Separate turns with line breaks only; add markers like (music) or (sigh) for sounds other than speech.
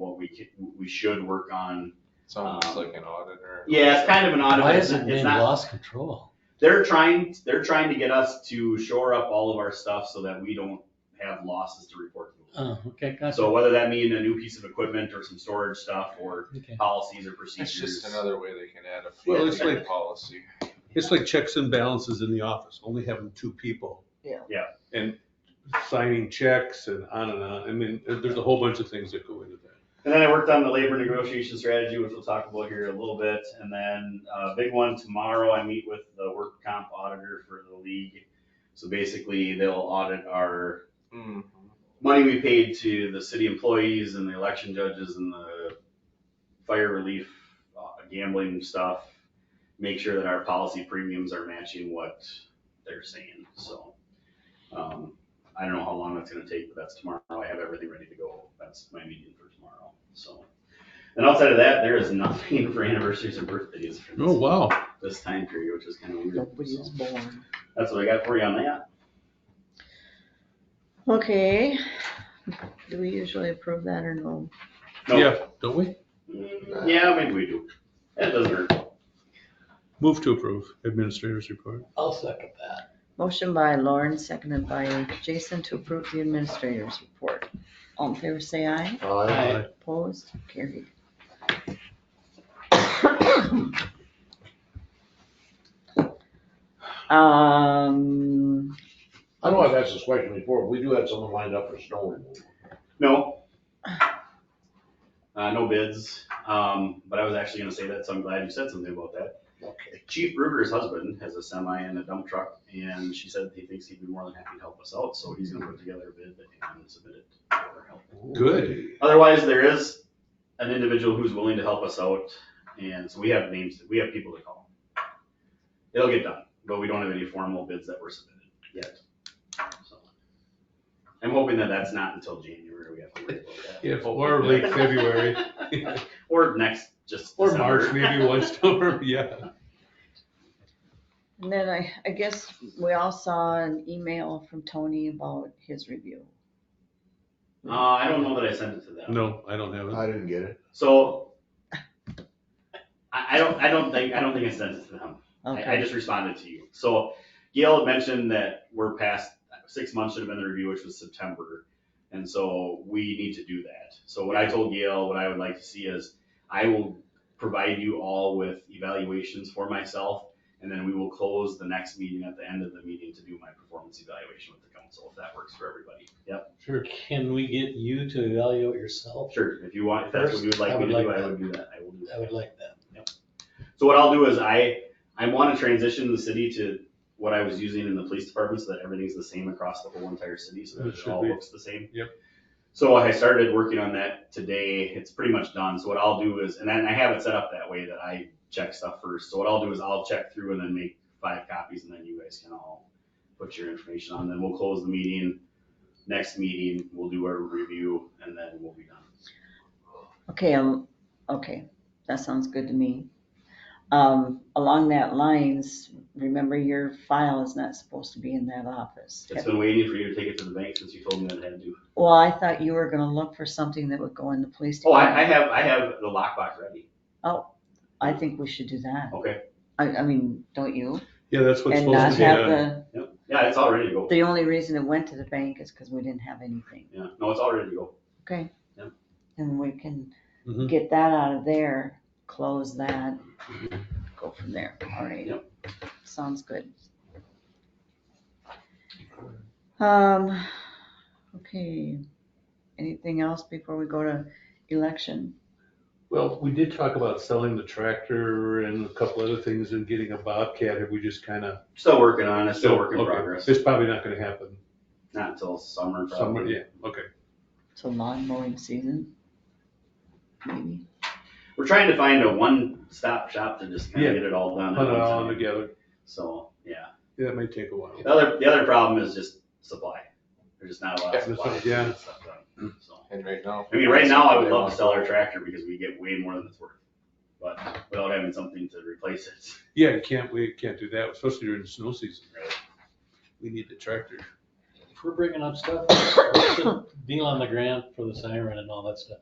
what we could, we should work on.
Sounds
Um,
like an auditor.
Yeah, it's kind of an odd.
Why
it's
is it
not-
being
it's not-
lost control?
They're trying, they're trying to get us to shore up all of our stuff so that we don't have losses to report. to.
Oh, okay,
So
gotcha.
whether that mean a new piece of equipment or some storage stuff or
Okay.
policies or
It's
procedures.
just another way they can add a
Well,
fee
it's
to your
like-
policy.
It's like checks and balances in the office, only having two people.
Yeah.
Yeah.
And signing checks and on and on. I mean, there- there's a whole bunch of things that go into that.
And then I worked on the labor negotiation strategy, which we'll talk about here in a little bit. And then uh, big one tomorrow, I meet with the work comp auditor for the league. So basically, they'll audit our
Hmm.
money we paid to the city employees and the election judges and the fire relief uh, gambling stuff. Make sure that our policy premiums are matching what they're saying. So um, I don't know how long that's going to take, but that's tomorrow. I have everything ready to go. That's my meeting for tomorrow. So. And outside of that, there is nothing (laughs) for anniversaries and birthdays for this,
Oh, wow.
this time period, which is kind of weird.
Nobody
So
is born.
that's what I got for you on that.
Okay, do we usually approve that or no?
No.
Yeah, don't we?
Mm, Yeah, maybe we do. That doesn't hurt.
Move to approve administrator's report.
I'll second that.
Motion by Lauren, seconded by Jason to approve the administrator's report. All in favor, say aye.
Aye.
Opposed, carried. Um,
I know I've asked this question before, we do have someone lined up for snow removal.
No. Uh, no bids, um, but I was actually gonna say that, so I'm glad you said something about that.
Okay.
Chief Ruger's husband has a semi and a dump truck, and she said he thinks he'd be more than happy to help us out, so he's gonna put together a bid and submit it for help.
Good.
Otherwise, there is an individual who's willing to help us out, and so we have names, we have people to call. It'll get done, but we don't have any formal bids that were submitted yet. So I'm hoping that that's not until January we have to worry about that.
(laughs) If, or late February,
Or next, just.
(laughs) or
December.
March, maybe (laughs) once over, yeah.
and then I, I guess we all saw an email from Tony about his review.
Uh, I don't know that I sent it to them.
No, I don't have it.
I didn't get it.
So. I, I don't, I don't think, I don't think I sent it to them. I, I
Okay,
just responded to you. So Gail had mentioned that we're past, six months should have been the review, which was September. And so we need to do that. So what I told Gail, what I would like to see is I will provide you all with evaluations for myself. And then we will close the next meeting at the end of the meeting to do my performance evaluation with the council, if that works for everybody. Yep,
Sure, can we get you to evaluate yourself?
sure. If you want, if that's what you would like me to do, I would do that. I will do that.
I would like that.
So what I'll do is I, I want to transition the city to what I was using in the police department so that everything's the same across the whole entire city, so that
That
it
should
all
be-
looks the same.
yep.
So I started working on that today. It's pretty much done. So what I'll do is, and then I have it set up that way that I check stuff first. So what I'll do is I'll check through and then make five copies and then you guys can all put your information on. Then we'll close the meeting. Next meeting, we'll do our review and then we'll be done.
okay, um, okay, that sounds good to me. Um, along that lines, remember your file is not supposed to be in that office.
It's been waiting for you to take it to the bank since you told me that I had to.
Well, I thought you were gonna look for something that would go in the police
Oh, I, I
department.
have, I have the lockbox ready.
I think we should do that.
Okay.
I, I mean, don't you?
Yeah, that's what's
And
supposed
not
to be
have
done.
the,
Yep. Yeah, it's all ready to go.
the only reason it went to the bank is because we didn't have anything,
Yeah, no, it's all ready to go.
okay?
Yep. Mm-hmm.
And we can
Mhm.
get that out of there, close that, go from there, all right?
Mm-hmm. Yep.
Sounds good. Um, okay, anything else before we go to election?
Well, we did talk about selling the tractor and a couple other things and getting a Bobcat. Have we just kind of?
Still working on it, still work in
Okay.
progress.
It's probably not gonna happen.
Not until summer,
Summer,
probably.
yeah, okay.
It's a lawn mowing season, maybe?
We're trying to find a one-stop shop to just kind
Yeah.
of get it all done. at
Put it
one
all
time.
together.
So, yeah.
Yeah, that might take a while.
The other, the other problem is just supply. There's just not a lot of
Yeah,
supply. to
yeah.
get stuff done, so.
And right now.
I mean, right now, I would love to sell our tractor because we get way more than it's worth. But without having something to replace it,
Yeah, you can't, we can't do that, especially during the snow season.
Right.
We need the tractor.
(coughs) If we're bringing up stuff, what's the deal on the grant for the siren and all that stuff?